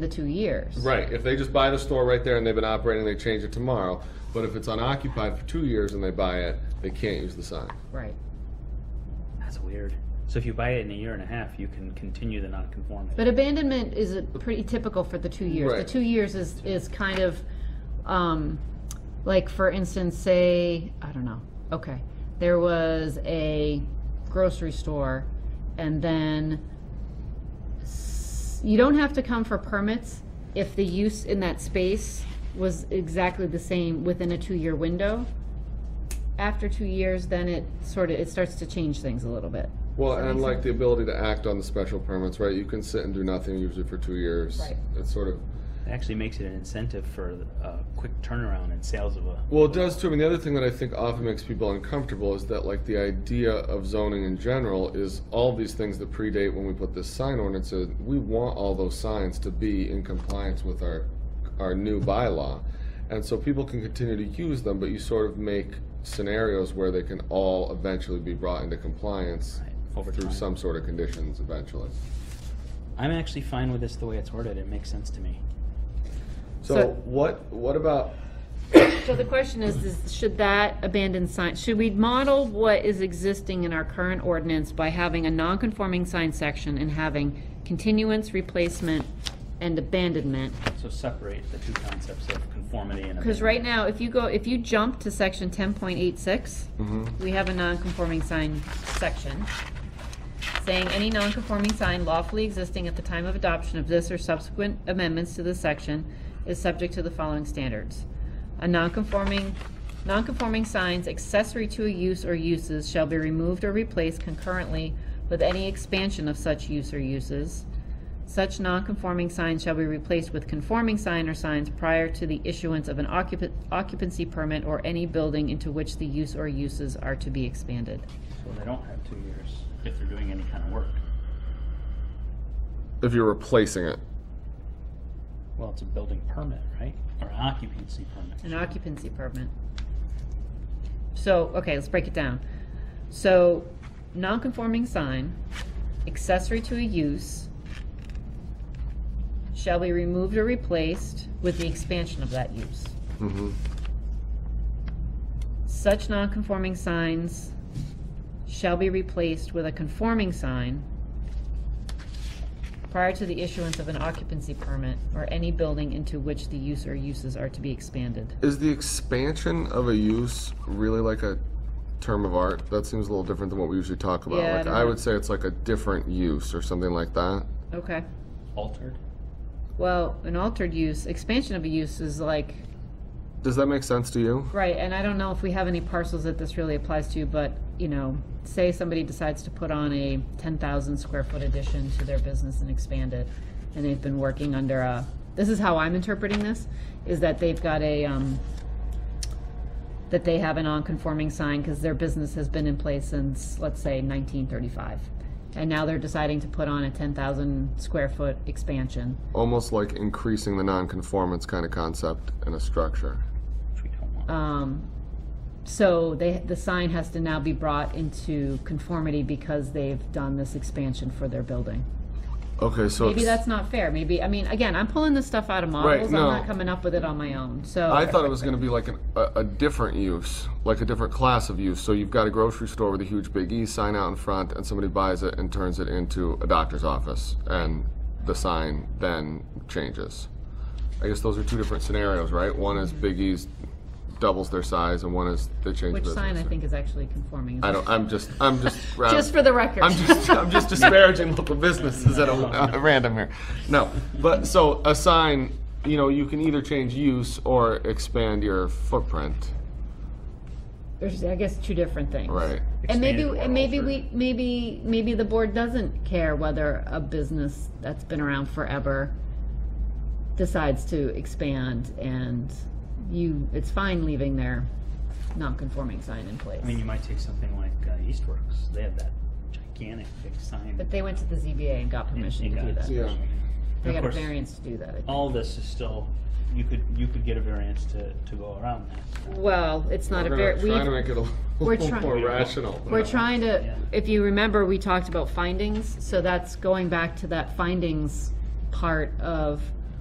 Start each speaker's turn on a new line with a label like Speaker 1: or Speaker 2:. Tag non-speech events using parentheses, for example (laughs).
Speaker 1: the two years.
Speaker 2: Right, if they just buy the store right there and they've been operating, they change it tomorrow. But if it's unoccupied for two years and they buy it, they can't use the sign.
Speaker 1: Right.
Speaker 3: That's weird. So if you buy it in a year and a half, you can continue the nonconformity.
Speaker 1: But abandonment is a pretty typical for the two years. The
Speaker 2: Right.
Speaker 1: two years is, is kind of, um, like for instance, say, I don't know, okay, there was a grocery store and then s- you don't have to come for permits if the use in that space was exactly the same within a two-year window. After two years, then it sort of, it starts to change things a little bit.
Speaker 2: Well, and like the ability to act on the special permits, right? You can sit and do nothing usually for two years.
Speaker 1: Right.
Speaker 2: It's sort of,
Speaker 3: It actually makes it an incentive for a quick turnaround in sales of a.
Speaker 2: well, it does too. I mean, the other thing that I think often makes people uncomfortable is that like the idea of zoning in general is all these things that predate when we put this sign ordinance in. We want all those signs to be in compliance with our, our new bylaw. And so people can continue to use them, but you sort of make scenarios where they can all eventually be brought into compliance
Speaker 3: Right, over
Speaker 2: through
Speaker 3: time.
Speaker 2: some sort of conditions eventually.
Speaker 3: I'm actually fine with this the way it's worded. It makes sense to me.
Speaker 2: So
Speaker 1: So-
Speaker 2: what, what about
Speaker 1: So the question is, is should that abandoned sign, should we model what is existing in our current ordinance by having a non-conforming sign section and having continuance, replacement, and abandonment?
Speaker 3: So separate the two concepts of conformity and.
Speaker 1: Because right now, if you go, if you jump to section ten point eight six, we have a non-conforming sign section saying any non-conforming sign lawfully existing at the time of adoption of this or subsequent amendments to this section is subject to the following standards. A non-conforming, non-conforming signs accessory to a use or uses shall be removed or replaced concurrently with any expansion of such use or uses. Such non-conforming signs shall be replaced with conforming sign or signs prior to the issuance of an occupa- occupancy permit or any building into which the use or uses are to be expanded.
Speaker 3: So they don't have two years if they're doing any kind of work.
Speaker 2: if you're replacing it?
Speaker 3: Well, it's a building permit, right? Or occupancy permit.
Speaker 1: An occupancy permit. So, okay, let's break it down. So, non-conforming sign, accessory to a use, shall be removed or replaced with the expansion of that use.
Speaker 2: Mm-hmm.
Speaker 1: Such non-conforming signs shall be replaced with a conforming sign prior to the issuance of an occupancy permit or any building into which the use or uses are to be expanded.
Speaker 2: Is the expansion of a use really like a term of art? That seems a little different than what we usually talk about.
Speaker 1: Yeah, I
Speaker 2: like
Speaker 1: don't
Speaker 2: I,
Speaker 1: know.
Speaker 2: would say it's like a different use or something like that.
Speaker 1: Okay.
Speaker 3: Altered.
Speaker 1: Well, an altered use, expansion of a use is like,
Speaker 2: Does that make sense to you?
Speaker 1: right, and I don't know if we have any parcels that this really applies to, but, you know, say somebody decides to put on a ten thousand square foot addition to their business and expand it, and they've been working under a, this is how I'm interpreting this, is that they've got a, um, that they have a non-conforming sign because their business has been in place since, let's say, nineteen thirty-five. And now they're deciding to put on a ten thousand square foot expansion.
Speaker 2: Almost like increasing the nonconformance kind of concept in a structure.
Speaker 3: Which we don't want.
Speaker 1: Um, so they, the sign has to now be brought into conformity because they've done this expansion for their building.
Speaker 2: Okay, so
Speaker 1: Maybe
Speaker 2: it's-
Speaker 1: that's not fair, maybe, I mean, again, I'm pulling this stuff out of models, I'm
Speaker 2: no.
Speaker 1: not coming up with it on my own, so.
Speaker 2: I thought it was going to be like an, a, a different use, like a different class of use. So you've got a grocery store with a huge Big E sign out in front, and somebody buys it and turns it into a doctor's office, and the sign then changes. I guess those are two different scenarios, right? One is Big E's doubles their size, and one is they change.
Speaker 1: Which
Speaker 2: business.
Speaker 1: sign I think is actually conforming.
Speaker 2: I don't. I'm just. I'm just.
Speaker 1: (laughs) Just for the record.
Speaker 2: I'm just, I'm (laughs) just disparaging local businesses at a, at a Uh, random here. No, but so a sign, you know, you can either change use or expand your footprint,
Speaker 1: There's, I guess, two different things.
Speaker 2: right?
Speaker 1: And maybe,
Speaker 3: Expanded or
Speaker 1: and maybe
Speaker 3: altered.
Speaker 1: we, maybe, maybe the board doesn't care whether a business that's been around forever decides to expand and you, it's fine leaving their non-conforming sign in place.
Speaker 3: I mean, you might take something like uh, Eastworks. They have that gigantic big sign.
Speaker 1: But they went to the ZBA and got permission to do that.
Speaker 2: Yeah.
Speaker 1: They
Speaker 3: And
Speaker 1: got
Speaker 3: of
Speaker 1: a
Speaker 3: course,
Speaker 1: variance to do that. I think.
Speaker 3: All this is still, you could, you could get a variance to, to go around that.
Speaker 1: Well, it's not a var,
Speaker 2: Trying to
Speaker 1: we,
Speaker 2: make it a
Speaker 1: we're
Speaker 2: little
Speaker 1: trying-
Speaker 2: more rational.
Speaker 1: we're trying to,
Speaker 3: Yeah.
Speaker 1: if you remember, we talked about findings, so that's going back to that findings part of